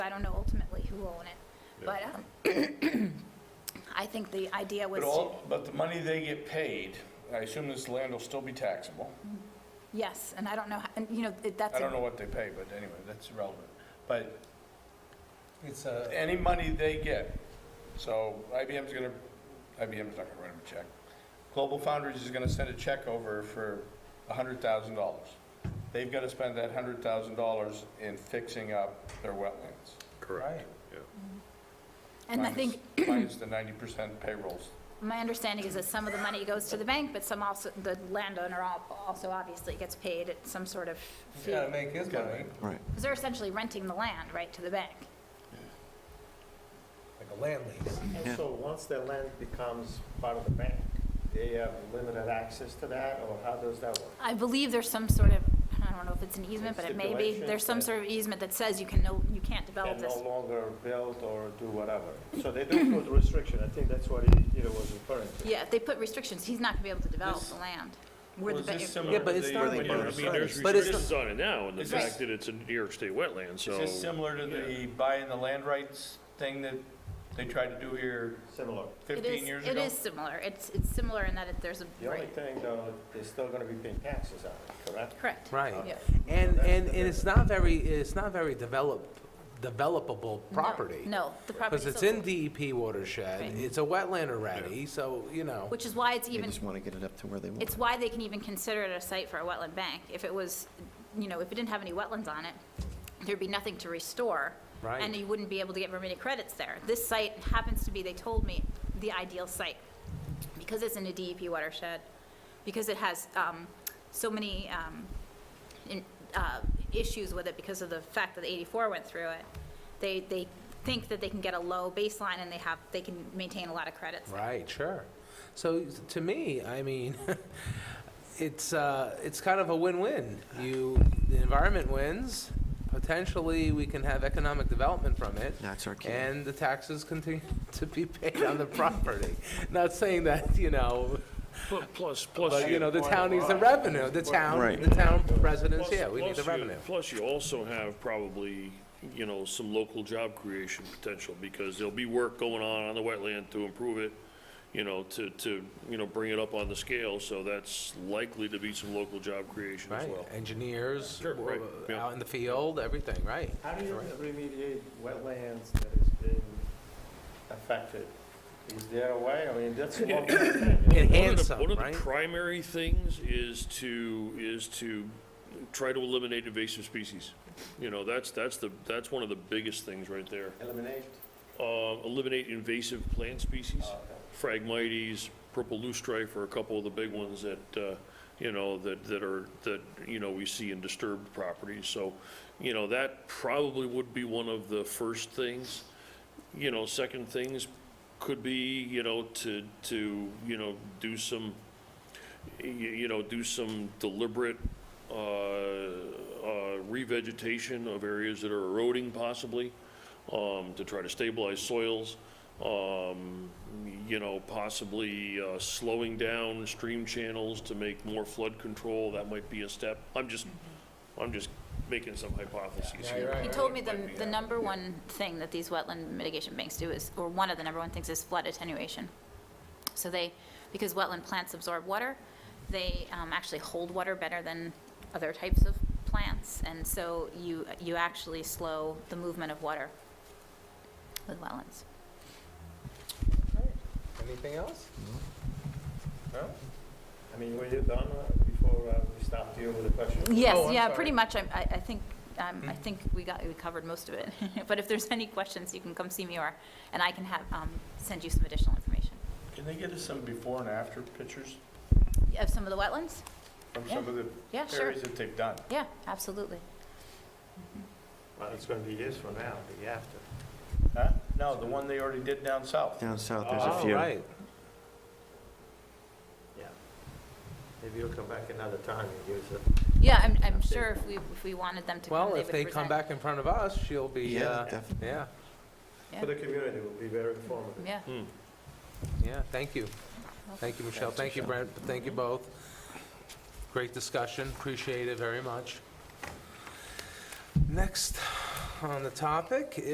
I don't know ultimately who will own it, but um, I think the idea was But to, all, but the money they get paid, I assume this land will still be taxable. yes, and I don't know, how- and you know, it- that's. I a- don't know what they pay, but anyway, that's irrelevant. But It's uh, a, any money they get, so IBM's gonna, IBM's not gonna write them a check. Global Foundries is gonna send a check over for a hundred thousand dollars. They've gotta spend that hundred thousand dollars in fixing up their wetlands. right, And I minus- think, Minus the ninety percent payrolls. my understanding is that some of the money goes to the bank, but some also, the landowner al- also obviously gets paid at some sort of he's fee. gotta make his Gotta money, Right. Because they're essentially renting the land, right, to the bank. like a land lease. So once their land becomes part of the bank, they have limited access to that, or how does that work? I believe there's some sort of, I don't know if it's an easement, but it may be, Stipulation there's some that- sort of easement that says you can no, you can't develop Can this. no longer build or do whatever. So they do put restriction, I think that's what he- Peter was referring to. Yeah, they put restrictions, he's not gonna be able to develop the land. Where the Was this ba- similar Yeah, but to it's the- not I mean, like I it's mean, there's not- but it's not- restrictions on it now, and the It's fact just- that it's a New York State wetland, Is so. this similar to the buying the land rights thing that they tried to do here Similar. It fifteen is, years it ago? is similar, it's, it's similar in that it, there's a, The only right, thing, though, they're still gonna be paying taxes on it, correct? correct. Right. Yeah. And, and, and it's not very, it's not very developed, developable No, property. No, the property. Because it's in DEP watershed, Right. it's a wetland already, so, you know. Which is why it's They even, just want to get it up to where they want. it's why they can even consider it a site for a wetland bank. If it was, you know, if it didn't have any wetlands on it, there'd be nothing to restore. And Right. you wouldn't be able to get remedial credits there. This site happens to be, they told me, the ideal site. Because it's in a DEP watershed, because it has um, so many um, in- uh, issues with it because of the fact that 84 went through it, they, they think that they can get a low baseline and they have, they can maintain a lot of credits there. Right, sure. So to me, I mean, it's, uh, it's kind of a win-win. You, the environment wins, potentially we can have economic development from it. That's our key. And the taxes continue to be paid on the property. Not saying that, you know, Pl- Plus, plus. but, you know, the town needs the revenue, the town, Right. the town residents, plus- yeah, we need plus the you- revenue. Plus, you also have probably, you know, some local job creation potential, because there'll be work going on on the wetland to improve it, you know, to, to, you know, bring it up on the scale, so that's likely to be some local job creation as Right, well. engineers, Sure, right, uh, yeah. out in the field, everything, right? How do you remediate wetlands that has been affected? Is there a way? I mean, that's one thing. One Enhance of the- them, One of right? the primary things is to, is to try to eliminate invasive species. You know, that's, that's the, that's one of the biggest things right there. Eliminate. Uh, Eliminate invasive plant species. Phragmites, purple loosestrife are a couple of the big ones that, uh, you know, that, that are, that, you know, we see in disturbed properties. So, you know, that probably would be one of the first things. You know, second things could be, you know, to, to, you know, do some, y- you know, do some deliberate uh, uh, revegetation of areas that are eroding possibly, um, to try to stabilize soils, um, you know, possibly uh, slowing down stream channels to make more flood control, that might be a step. I'm just, I'm just making some hypotheses Mm-hmm. Yeah, you're here. right. He told me the, the number one thing that these wetland mitigation banks do is, or one of the number one things is flood attenuation. So they, because wetland plants absorb water, they um, actually hold water better than other types of plants. And so you, you actually slow the movement of water with wetlands. Anything else? No? I mean, were you done uh, before uh, we start dealing with the question? Oh, Yes, I'm yeah, sorry. Hmm. pretty much, I'm- I, I think, um, I think we got, we covered most of it. But if there's any questions, you can come see me or, and I can have, um, send you some additional information. Can they get us some before and after pictures Of some of the wetlands? from some of the Yeah, sure. areas that they've done? Yeah, absolutely. Well, it's gonna be years from now, the after. Huh? No, the one they already did down south. Down south, there's a Oh, few. right. Yeah. Maybe you'll come back another time and use it. Yeah, I'm, I'm sure if we, if we wanted them to come, Well, they would if they present. come back in front of us, she'll be, Yeah, uh, definitely. yeah, For the community, it will be very informative. Yeah, yeah, thank you. Thank you, Michelle, thank you, Brent, thank you both. Great discussion, appreciate it very much. Next on the topic